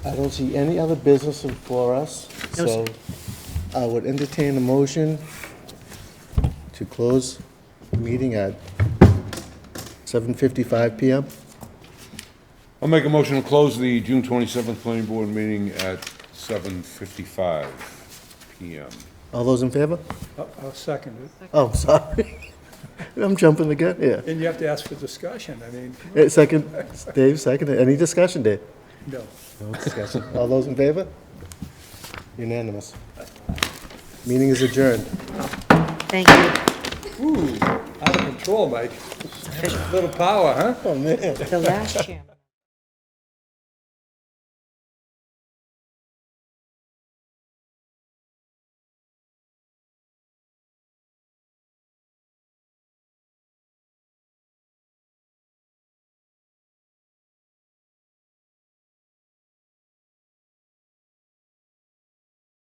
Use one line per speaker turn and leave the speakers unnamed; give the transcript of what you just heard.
I don't see any other business before us,
No,
so I would entertain a motion to close the meeting at 7:55 PM.
I'll make a motion to close the June twenty-seventh planning board meeting at seven fifty-five PM.
All those in favor?
I'll Oh, I'll second it.
Oh, sorry. I'm jumping the gun here.
And you have to ask for discussion, I mean,
Eh, Second, Dave, second. Any discussion, Dave?
no.
No discussion. All those in favor? Unanimous. Meeting is adjourned.
Thank you.
Ooh, out of control, Mike. Little power, huh?
Oh, man.
The last chairman.